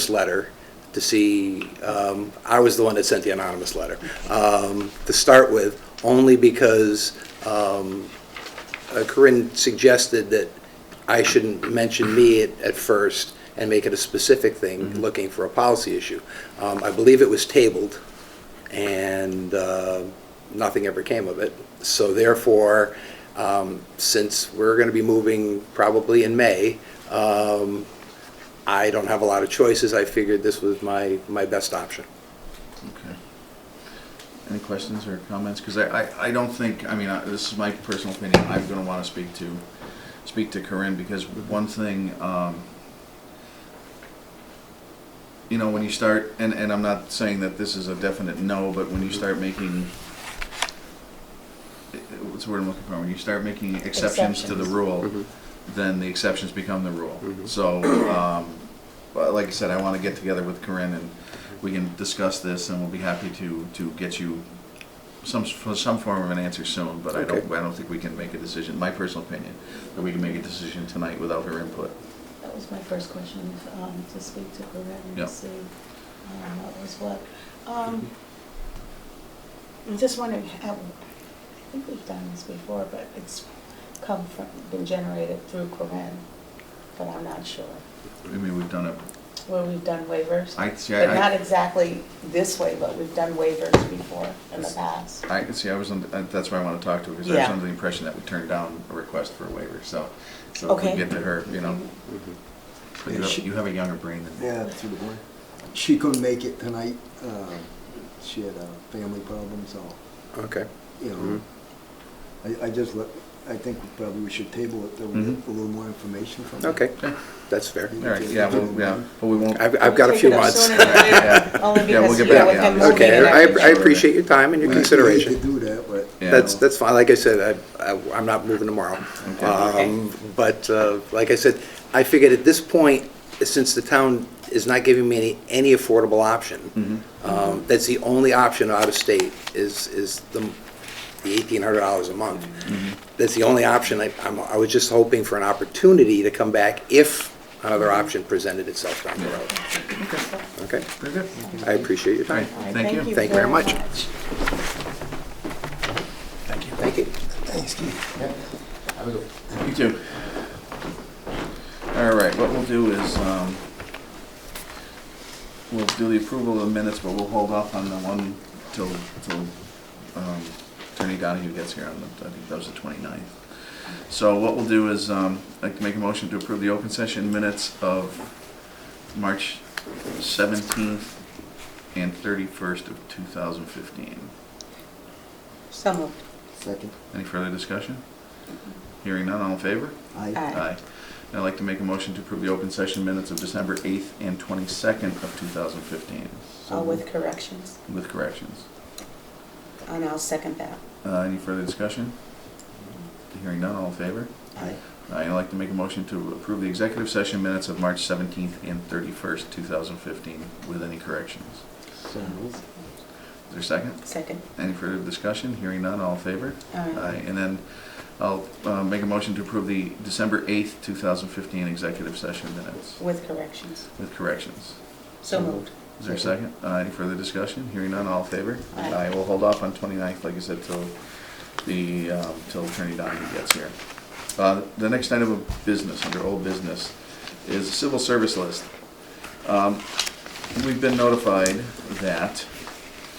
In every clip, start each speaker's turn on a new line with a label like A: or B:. A: this letter to see, um, I was the one that sent the anonymous letter, um, to start with, only because um, uh, Corinne suggested that I shouldn't mention me at at first and make it a specific thing, looking for a policy issue. Um, I believe it was tabled, and uh, nothing ever came of it. So therefore, um, since we're going to be moving probably in May, um, I don't have a lot of choices. I figured this was my, my best option.
B: Okay. Any questions or comments? Because I, I, I don't think, I mean, I- this is my personal opinion, I'm gonna wanna speak to, speak to Corinne, because one thing, um, you know, when you start, and, and I'm not saying that this is a definite no, but when you start making, eh, eh, what's the word I'm looking for, when you start making exceptions to the
C: Exceptions.
B: rule, then the exceptions become the rule. So, um, but like I said, I want to get together with Corinne and we can discuss this and we'll be happy to, to get you some, for some form of an answer soon, but I don't,
A: Okay.
B: I don't think we can make a decision, my personal opinion, that we can make a decision tonight without her input.
C: That was my first question, um, to speak to Corinne
B: Yeah.
C: and see um, what was what. Um, I'm just wondering, how- I think we've done this before, but it's come from, been generated through Corinne, but I'm not sure.
B: I mean, we've done it,
C: Where we've done waivers.
B: I, see,
C: But not
B: I, I-
C: exactly this way, but we've done waivers before in the past.
B: I, see, I was, on- uh, that's why I want to talk to her, because I was
C: Yeah.
B: under the impression that we turned down a request for a waiver, so. So if we
C: Okay.
B: get to her, you know, Mm-hmm. but you
D: Yeah,
B: have,
D: she-
B: you have a younger brain than me.
D: Yeah, through the board. She couldn't make it tonight. Uh, She had a family problem, so,
A: Okay.
D: you
A: Mhm.
D: know. I, I just, let- I think probably we should table it, though, we
B: Mhm.
D: get a little more information from her.
A: Okay,
B: Yeah.
A: that's fair.
B: All right, yeah, well, yeah, but we won't.
A: I've, I've got a
C: Take
A: few
C: it up
A: months.
C: sooner than later.
B: Yeah.
C: Only
B: Yeah, we'll
C: because,
B: get
C: you know,
B: back
C: with
B: to
C: them
B: you.
C: moving
A: Okay,
C: and
A: I,
C: everything.
A: I appreciate your time and your
D: We- We
A: consideration.
D: hate to do that, but.
B: Yeah.
A: That's, that's fine, like I said, I, I- I'm not moving tomorrow.
B: Okay.
A: Um, But, uh, like I said, I figured at this point, since the town is not giving me any, any affordable
B: Mm-hmm.
A: option, um, that's the only option out of state is, is the eighteen hundred dollars a month. That's the only option, I, I'm, I was just hoping for an opportunity to come back if another option presented itself down the road. Okay,
B: Very good.
A: I appreciate your
B: All right,
A: time.
C: All right,
B: thank you.
A: Thank you very much.
C: much.
A: Thank you.
B: You too. All right, what we'll do is, um, we'll do the approval of the minutes, but we'll hold off on the one till, till, um, Attorney Donahue gets here on the, I think that was the 29th. So what we'll do is, um, I'd like to make a motion to approve the open session minutes of March seventeenth and thirty-first of two thousand fifteen.
C: So moved.
D: Second.
B: Any further discussion? Hearing none, all in favor?
D: Aye.
C: Aye.
B: Aye. And I'd like to make a motion to approve the open session minutes of December 8th and 22nd of 2015
C: Uh, With corrections,
B: with corrections.
C: and I'll second that.
B: Uh, Any further discussion? Hearing none, all in favor?
D: Aye.
B: Aye, I'd like to make a motion to approve the executive session minutes of March 17th and 31st, 2015 with any corrections.
D: So moved.
B: Is there a second?
C: Second.
B: Any further discussion? Hearing none, all in favor?
C: Aye.
B: And then I'll uh, make a motion to approve the December 8th, 2015 executive session minutes
C: With corrections.
B: with corrections.
C: So moved.
B: Is there a second? Uh, Any further discussion? Hearing none, all in favor?
C: Aye.
B: I will hold off on 29th, like I said, till the, um, till Attorney Donahue gets here. Uh, The next item of business, under old business, is the civil service list. Um, We've been notified that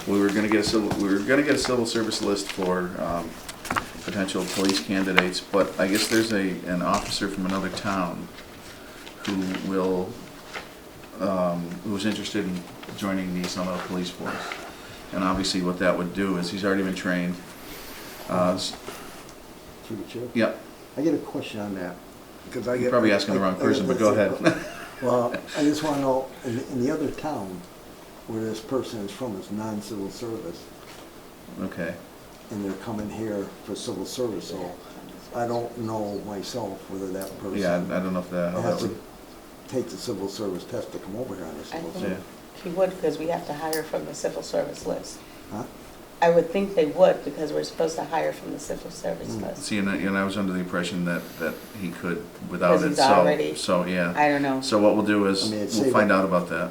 B: we were gonna get a civil, we were gonna get a civil service list for um, potential police candidates, but I guess there's a, an officer from another town who will um, who's interested in joining the Sunbelt Police Force. And obviously, what that would do is he's already been trained. Uh, s-
D: Through the chair.
B: yeah,
D: I get a question on that, because I
B: You're
D: get.
B: probably asking the wrong
D: I- I-
B: person, but go ahead.
D: Well, I just want to know, in, in the other town where this person is from, is non-civil service,
B: okay.
D: and they're coming here for civil service, so I don't know myself whether that person.
B: Yeah, I I don't know if that, how that
D: Has
B: would,
D: to take the civil service test to come over here on the
C: I
D: civil
C: think
B: Yeah.
D: service.
C: he would, because we have to hire from the civil service list.
D: Huh?
C: I would think they would, because we're supposed to hire from the civil service
D: Mm.
C: list.
B: see, and I, and I was under the impression that, that he could without
C: Because
B: it,
C: he's
B: so,
C: already-
B: so, yeah.
C: I don't know.
B: So what we'll do is,
D: I mean, it's
B: we'll
D: saving-
B: find out about that.